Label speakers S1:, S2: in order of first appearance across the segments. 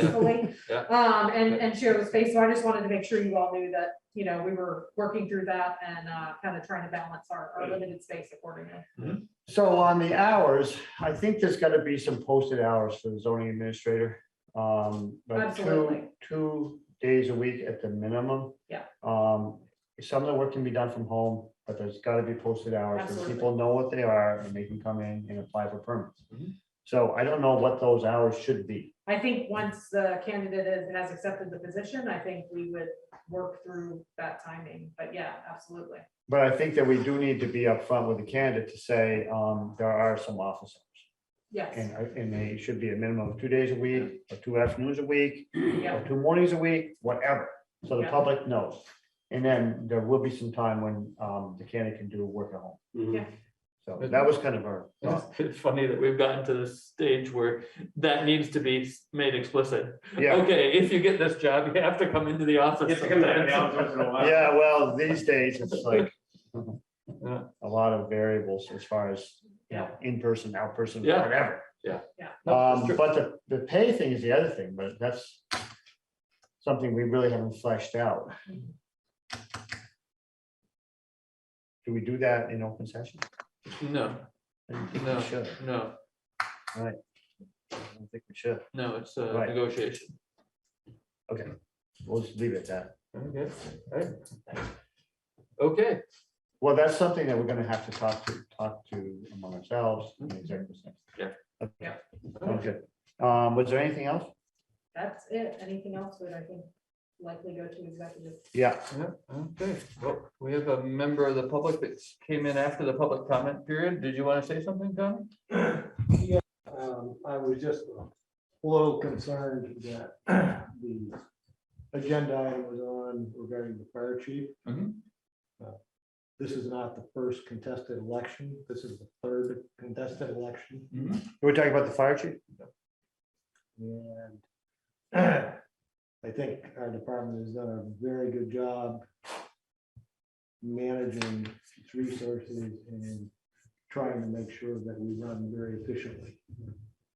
S1: peacefully.
S2: Yeah.
S1: Um, and, and share the space. So I just wanted to make sure you all knew that, you know, we were working through that and, uh, kind of trying to balance our, our limited space accordingly.
S3: So on the hours, I think there's gotta be some posted hours for the zoning administrator. Um, but two,
S1: Absolutely.
S3: two days a week at the minimum.
S1: Yeah.
S3: Um, some of the work can be done from home, but there's gotta be posted hours, so
S1: Absolutely.
S3: people know what they are, and they can come in and apply for
S2: Mhm.
S1: Mm-hmm.
S3: permits. So I don't know what those hours should be.
S1: I think once the candidate is- has accepted the position, I think we would work through that timing, but yeah, absolutely.
S3: But I think that we do need to be upfront with the candidate to say, um, there are some office hours.
S1: Yes,
S3: And, I- and they should be a minimum of two days a week, or two afternoons a week,
S1: yeah,
S3: or two mornings a week, whatever. So the
S1: Yeah.
S3: public knows. And then there will be some time when, um, the candidate can do work at home.
S4: Mm-hmm.
S1: Yeah.
S3: So that was kind of our thought.
S4: It's funny that we've gotten to this stage where that needs to be s- made explicit.
S3: Yeah,
S4: Okay, if you get this job, you have to come into the office. sometimes.
S3: yeah, well, these days, it's like
S4: Yeah.
S3: a lot of variables as far as, you know, in-person, out-person,
S4: Yeah.
S3: whatever.
S4: No,
S3: Um,
S4: that's true.
S3: but the, the pay thing is the other thing, but that's something we really haven't fleshed out.
S4: Mm-hmm.
S3: Do we do that in open session?
S4: No,
S3: I don't think
S4: No.
S3: we should.
S4: no,
S3: I don't think we should.
S4: no, it's a
S3: Right.
S4: negotiation.
S3: We'll just leave it at that.
S4: Okay, alright. Okay,
S3: Well, that's something that we're gonna have to talk to, talk to among ourselves. in executive session.
S4: Yeah.
S3: Okay,
S1: Yeah.
S3: sounds good. Um, was there anything else?
S1: that's it. Anything else would, I think, likely go to executive.
S3: Yeah,
S4: yeah, okay, well, we have a member of the public that came in after the public comment period. Did you want to say something, Tom?
S5: Um, I was just a little concerned that the agenda item was on regarding the fire chief.
S4: Mhm.
S5: Uh, This is not the first contested election. This is the third contested election
S4: Mm-hmm.
S3: we're talking about the fire chief?
S5: and I think our department has done a very good job managing its resources and trying to make sure that we run very efficiently.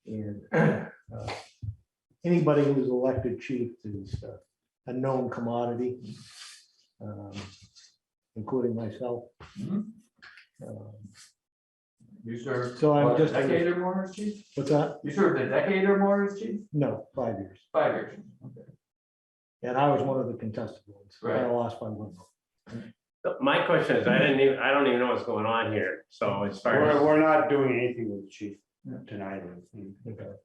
S5: And uh, anybody who's elected chief is uh, a known commodity, um, including myself.
S4: Mhm.
S5: Um,
S4: You served
S5: So I'm
S4: what, a
S5: just,
S4: decade or more as chief?
S5: what's that?
S4: You served a decade or more as chief?
S5: No, five years.
S4: Five years.
S5: And I was one of the contested ones. I
S4: Right.
S5: lost by one vote.
S6: So My question is, I didn't even, I don't even know what's going on here, so as far
S3: We're,
S6: as,
S3: we're not doing anything with the chief tonight. or anything.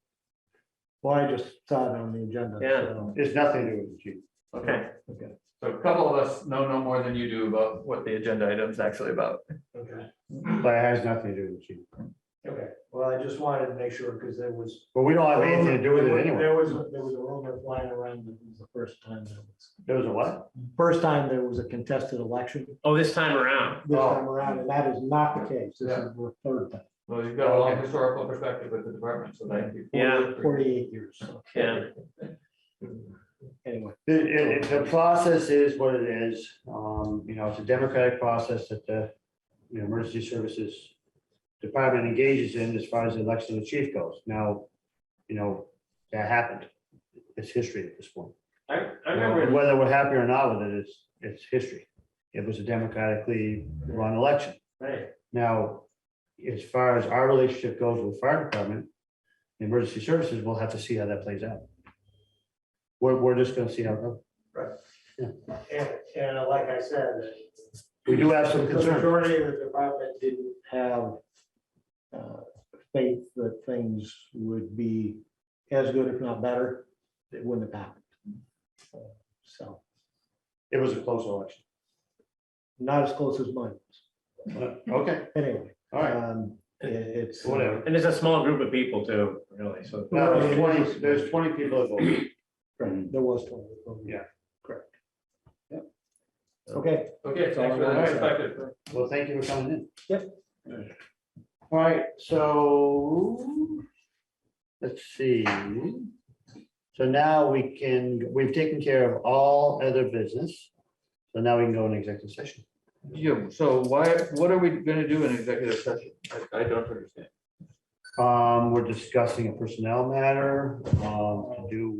S5: Well, I just saw it on the agenda.
S6: Yeah.
S5: so,
S3: There's nothing to do with the chief.
S6: okay,
S5: Okay.
S4: So a couple of us know no more than you do about what the agenda item's actually about.
S5: Okay.
S3: But it has nothing to do with the chief.
S5: Okay, well, I just wanted to make sure because there was.
S3: But we don't have anything to do with
S5: There
S3: it
S5: was-
S3: anyway.
S5: There was, a- there was a rumor flying around that it was the first time that was.
S3: There was a what?
S5: First time there was a contested election
S6: oh, this time around,
S5: this
S3: Oh.
S5: time around, and that is not the case. This is the third time,
S4: Well, you've got a long historical perspective with the department, so thank you.
S6: Yeah.
S5: forty-eight years. so,
S6: yeah,
S5: Anyway,
S3: The, it- it- the process is what it is. Um, you know, it's a democratic process that the, you know, emergency services department engages in as far as the election of the chief goes. Now, you know, that happened. It's history at this point.
S6: I, I
S3: And
S6: remember,
S3: Whether we're happy or not with it, it's, it's history. It was a democratically run election.
S6: right,
S3: Now, as far as our relationship goes with the fire department, the emergency services, we'll have to see how that plays out. We're, we're just gonna see how, it goes.
S5: and, and like I said,
S3: we do have
S5: the
S3: some concerns.
S5: majority of the department didn't have uh, faith that things would be as good, if not better. It wouldn't have happened. Uh, So.
S3: It was a close election.
S5: not as close as mine.
S3: Uh, Okay,
S5: Anyway,
S3: all right,
S5: um, it- it's.
S3: whatever.
S6: and it's a small group of people too, really, so.
S3: Now, there's twenty, there's twenty people that voted.
S5: Right, There was twenty. okay.
S3: Yeah.
S5: Correct. Okay,
S4: Okay, thanks for that perspective.
S3: Well, thank you for coming in.
S5: Yep.
S3: All right, so let's see. So now we can, we've taken care of all other business. So now we can go in executive session.
S4: Yeah, so why, what are we gonna do in executive session? I, I don't understand.
S3: Um, we're discussing a personnel matter, um, to do